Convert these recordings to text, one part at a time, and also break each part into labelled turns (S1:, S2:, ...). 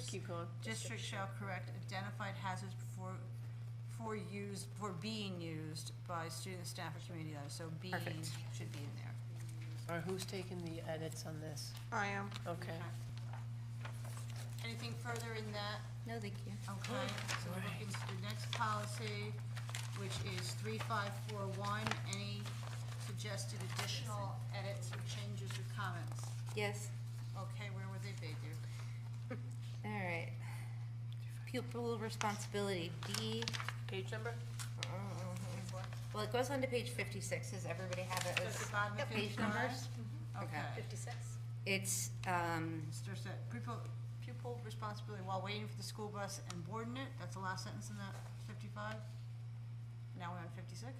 S1: keep going.
S2: District shall correct identified hazards before, for use, for being used by students, staff, or community others, so being
S1: Perfect.
S2: should be in there.
S1: Or who's taking the edits on this?
S3: I am.
S1: Okay.
S2: Anything further in that?
S4: No, thank you.
S2: Okay, so we're looking to the next policy, which is three five four one, any suggested additional edits or changes or comments?
S4: Yes,
S2: Okay, where would they be, dear?
S4: all right. Pupil responsibility, D, uh-huh.
S1: Page number?
S4: well, it goes on to page fifty-six, does everybody have it?
S2: Just
S4: as
S2: the bottom of
S4: Page
S2: 55?
S4: numbers?
S2: Okay.
S5: Fifty-six?
S4: It's, um,
S2: Mr. said, pupil, pupil responsibility while waiting for the school bus and boarding it, that's the last sentence in that fifty-five? Now we're on fifty-six?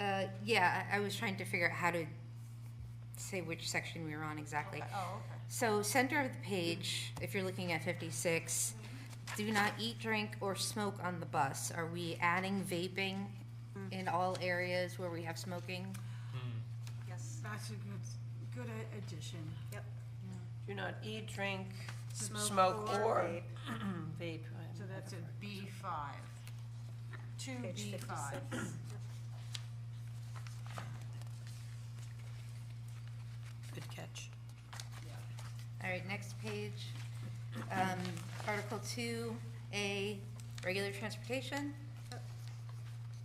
S4: uh, yeah, I, I was trying to figure out how to say which section we were on exactly.
S2: Oh, okay.
S4: So center of the page, if you're looking at fifty-six, do not eat, drink, or smoke on the bus. Are we adding vaping in all areas where we have smoking?
S5: Yes.
S2: That's a good, good a- addition.
S5: Yep.
S1: Do not eat, drink,
S2: Smoke
S1: smoke,
S2: or
S1: or
S5: vape.
S1: vape.
S2: So that's a B five. Two
S5: Page
S2: B five.
S5: fifty-six.
S1: Good catch.
S4: All right, next page. Um, Article two, A, regular transportation.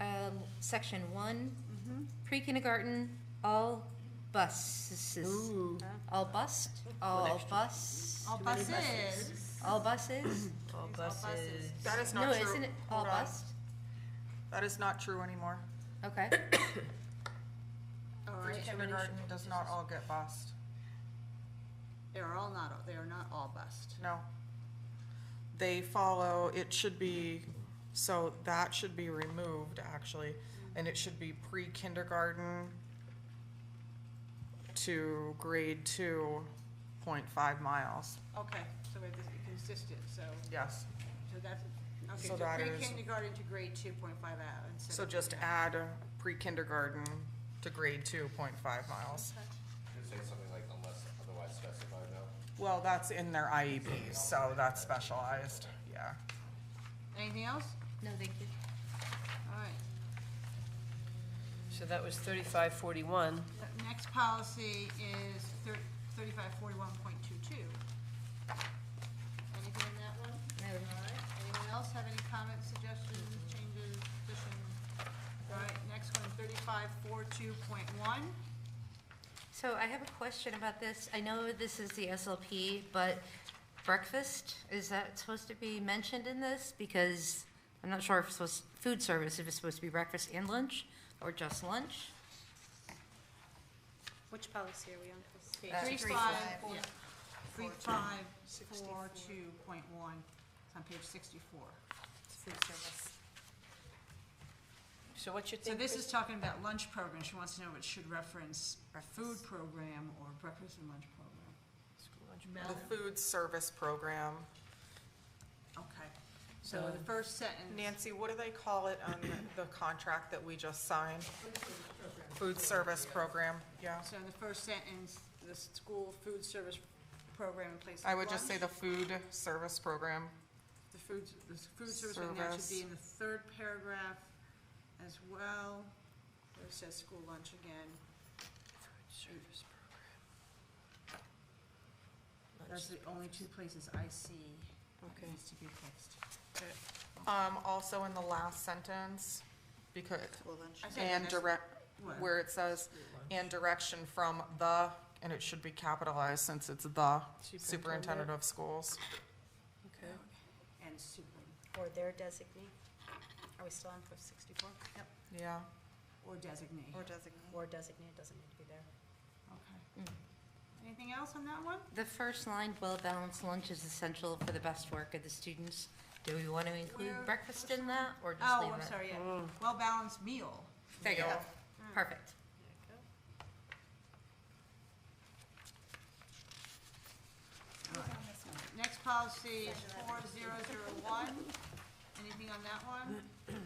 S4: Um, section one,
S3: Mm-hmm.
S4: pre-kindergarten, all buses. All bus, all bus,
S2: All buses.
S4: all buses?
S1: All
S2: buses.
S1: buses.
S3: That is
S4: No,
S3: not true.
S4: isn't it all
S3: Hold on.
S4: bus?
S3: That is not true anymore.
S4: Okay,
S2: Oh,
S3: Kindergarten does not all get bused.
S2: They are all not, they are not all bused.
S3: No. They follow, it should be, so that should be removed, actually, and it should be pre-kindergarten to grade two point five miles.
S2: Okay, so it's consistent, so,
S3: Yes.
S2: so that's, okay,
S3: So
S2: so
S3: that is-
S2: pre-kindergarten to grade two point five out instead of.
S3: So just add uh, pre-kindergarten to grade two point five miles.
S6: You're saying something like unless otherwise specified, no?
S3: Well, that's in their IEP, so that's specialized, yeah.
S2: Anything else?
S4: no, thank you.
S2: All right.
S1: So that was thirty-five forty-one.
S2: The Next policy is thirty-five forty-one point two-two. Anything in that one?
S4: No.
S2: All right, anyone else have any comments, suggestions, changes, additions? All right, next one, thirty-five four-two point one.
S4: So I have a question about this. I know this is the SLP, but breakfast, is that supposed to be mentioned in this? Because I'm not sure if it's supposed, food service, if it's supposed to be breakfast and lunch, or just lunch?
S5: Which policy are we on? Page
S4: Uh,
S2: Three
S4: three
S2: five,
S4: five,
S2: yeah, three five four-two point one, it's on page sixty-four.
S5: Food service.
S1: So what you
S2: So
S1: think?
S2: this
S1: Chris?
S2: is talking about lunch program, she wants to know if it should reference a food program or breakfast and lunch program.
S1: School lunch
S3: The
S2: Mel?
S3: food service program.
S2: Okay, so the first sentence.
S3: Nancy, what do they call it on the contract that we just signed? Food service program, yeah.
S2: So in the first sentence, the school food service program in place of
S3: I would just say
S2: lunch.
S3: the food service program.
S2: The food, the food service right now should
S3: Service.
S2: be in the third paragraph as well, where it says school lunch again.
S1: Service program.
S2: That's the only two places I see that
S1: Okay.
S2: needs to be fixed.
S3: Um, also in the last sentence, because,
S5: School lunch.
S2: I think the
S3: and
S2: next
S3: direct,
S2: one.
S3: where it says, and direction from the, and it should be capitalized since it's the superintendent of schools.
S1: Okay.
S2: And super,
S5: Or their designee. Are we still on for sixty-four? Yep.
S3: Yeah,
S2: or designate.
S3: Or designate.
S5: Or designee, it doesn't need to be there.
S2: Okay. Anything else on that one?
S4: The first line, well-balanced lunch is essential for the best work of the students. Do we want to include
S2: Where-
S4: breakfast in that, or just
S2: Oh,
S4: leave it? Mm.
S2: I'm sorry, yeah. Well-balanced meal.
S4: There you go,
S3: Meal.
S4: perfect.
S2: Next policy is four zero zero one. Anything on that one?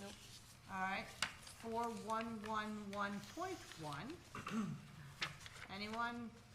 S2: Nope. All right, four one one one point one. Anyone